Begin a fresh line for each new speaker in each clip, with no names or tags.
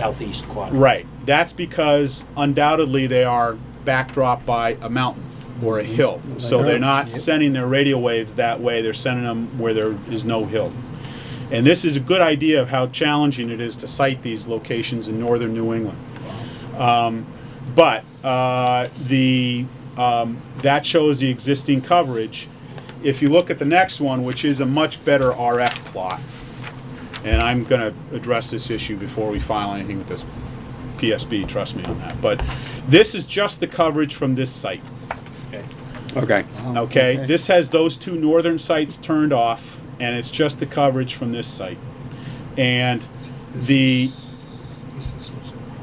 southeast quadrant.
Right. That's because undoubtedly they are backdropped by a mountain or a hill. So they're not sending their radio waves that way. They're sending them where there is no hill. And this is a good idea of how challenging it is to site these locations in northern New England. Um, but uh, the um, that shows the existing coverage. If you look at the next one, which is a much better RF plot, and I'm gonna address this issue before we file anything with this PSB, trust me on that. But this is just the coverage from this site,
Okay.
Okay.
Oh, okay? This has those two northern sites turned off, and it's just the coverage from this site. And the,
This is, this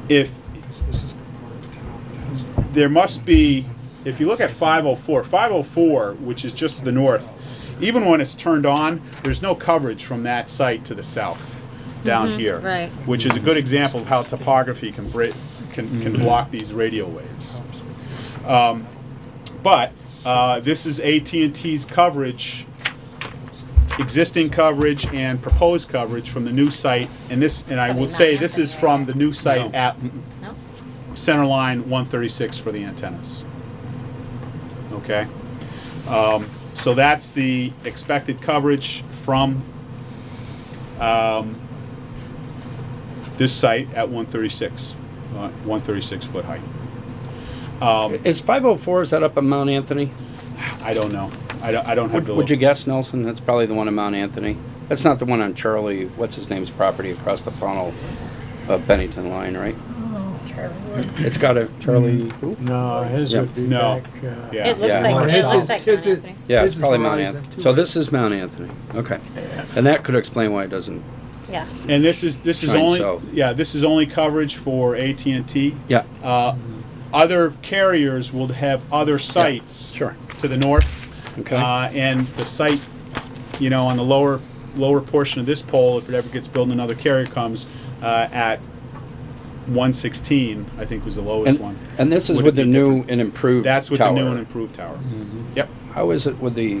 if,
is the part of town that has no
there must be, if you look at 504, 504, which is just to the north, even when it's turned on, there's no coverage from that site to the south down here.
Mm-hmm. right.
Which is a good example of how topography can, bri- can, can block these radio waves. Um, but uh, this is AT&T's coverage existing coverage and proposed coverage from the new site and this and i
Probably
would
not
say this is
happening,
from
right?
the new site
No.
at
No?
center line 136 for the antennas. Okay? Um, so that's the expected coverage from um, this site at 136, uh, 136 foot height.
Is 504, is that up at Mount Anthony?
I don't know. I don't, I don't have
Would,
the.
would you
look.
guess, Nelson? That's probably the one on Mount Anthony. That's not the one on Charlie, what's his name's property across the funnel of Bennington Line, right? It's got a Charlie.
No, his
Yeah.
would be
No.
back. uh,
Yeah.
It looks
Yeah.
like,
His
it looks
is-
like
his is-
Mount Anthony.
Yeah, it's
This is
probably Mount
Verizon,
Anthony.
too,
So
right?
this is Mount Anthony. Okay. And that could explain why it doesn't.
Yeah.
And this is, this is
Shine
only,
south.
yeah, this is only coverage for AT&T.
Yeah.
Uh, Other carriers will have other sites.
sure.
To the north.
Okay.
Uh, and the site, you know, on the lower, lower portion of this pole, if it ever gets built and another carrier comes, uh, at one sixteen, I think was the lowest
and,
one.
and this is
Would it
with the
be
new
different?
and improved
That's with the
tower. Mm-hmm.
new and improved tower. Yep.
How is it with the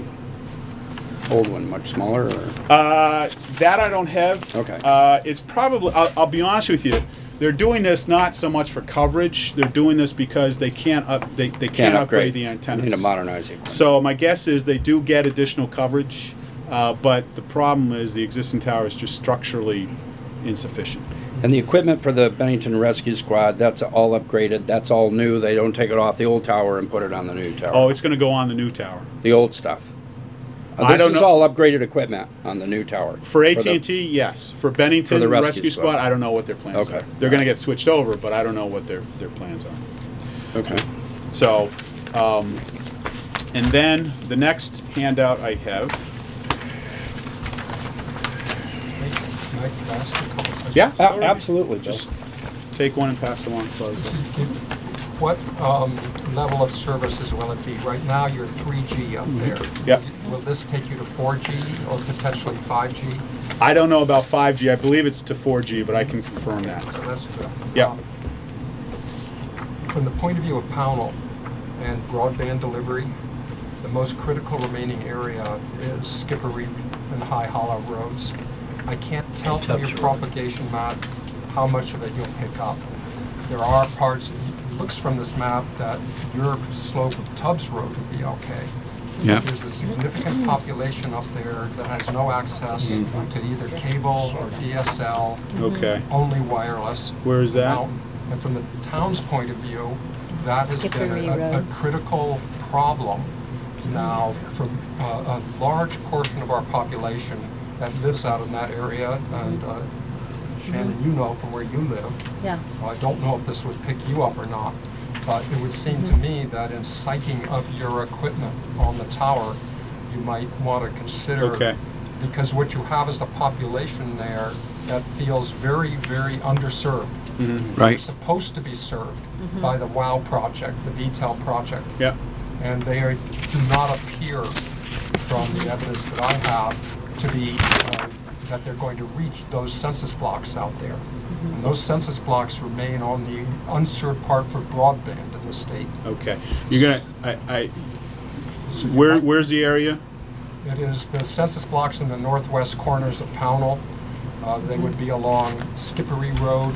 old one? Much smaller? Or?
Uh, that I don't have.
Okay.
Uh, it's probably, I'll, I'll be honest with you, they're doing this not so much for coverage, they're doing this because they can't up, they, they can't upgrade the antennas.
Need to modernize it.
So my guess is they do get additional coverage, uh, but the problem is the existing tower is just structurally insufficient.
And the equipment for the Bennington Rescue Squad, that's all upgraded, that's all new, they don't take it off the old tower and put it on the new
Oh,
tower,
it's going to go on the new tower
the old stuff. Uh,
I
This
don't
is
know-
all upgraded equipment on the new tower.
for AT
the-
and T. Yes, for Bennington
For the
Rescue,
rescue
Squad,
squad.
I don't know what their plans
Okay.
are. They're going to get switched over, but I don't know what their their plans are.
Okay.
So, um, and then the next handout I have.
Can I can I ask a couple questions?
Yeah,
A- Absolutely,
Just
just,
take one and pass the one. Close.
What um, level of services will it be? Right now, you're 3G up there.
Mm-hmm. Yep.
Will this take you to 4G or potentially 5G?
I don't know about 5G. I believe it's to 4G, but I can confirm that.
So that's good.
Yep.
Um, From the point of view of Pownell and broadband delivery, the most critical remaining area is Skippery and High Hollow Roads. I can't tell from your propagation map how much of it you'll pick up. There are parts, it looks from this map that your slope of Tubbs Road would be okay.
Yeah.
There's a significant population up there that has no access to either cable or DSL
Okay.
only wireless.
Where is that?
Now, And from the town's point of view, that has been
Skippery
a- a, a
Road.
critical problem now for uh, a large portion of our population that lives out in that area. And uh, Shannon, you know from where you live,
Yeah.
Well, I don't know if this would pick you up or not, but it would seem to me that in sighting of your equipment on the tower, you might want to consider.
Okay.
Because what you have is the population there that feels very, very underserved. They're
right,
supposed to be served by the WOW project, the VTEL project.
Yep.
And they are, do not appear, from the evidence that I have, to be, uh, that they're going to reach those census blocks out there. And those census blocks remain on the unserved part for broadband in the state.
Okay, you're gonna, I, I, where, where's the area?
It is the census blocks in the northwest corners of Pownell. Uh, They would be along Skippery Road,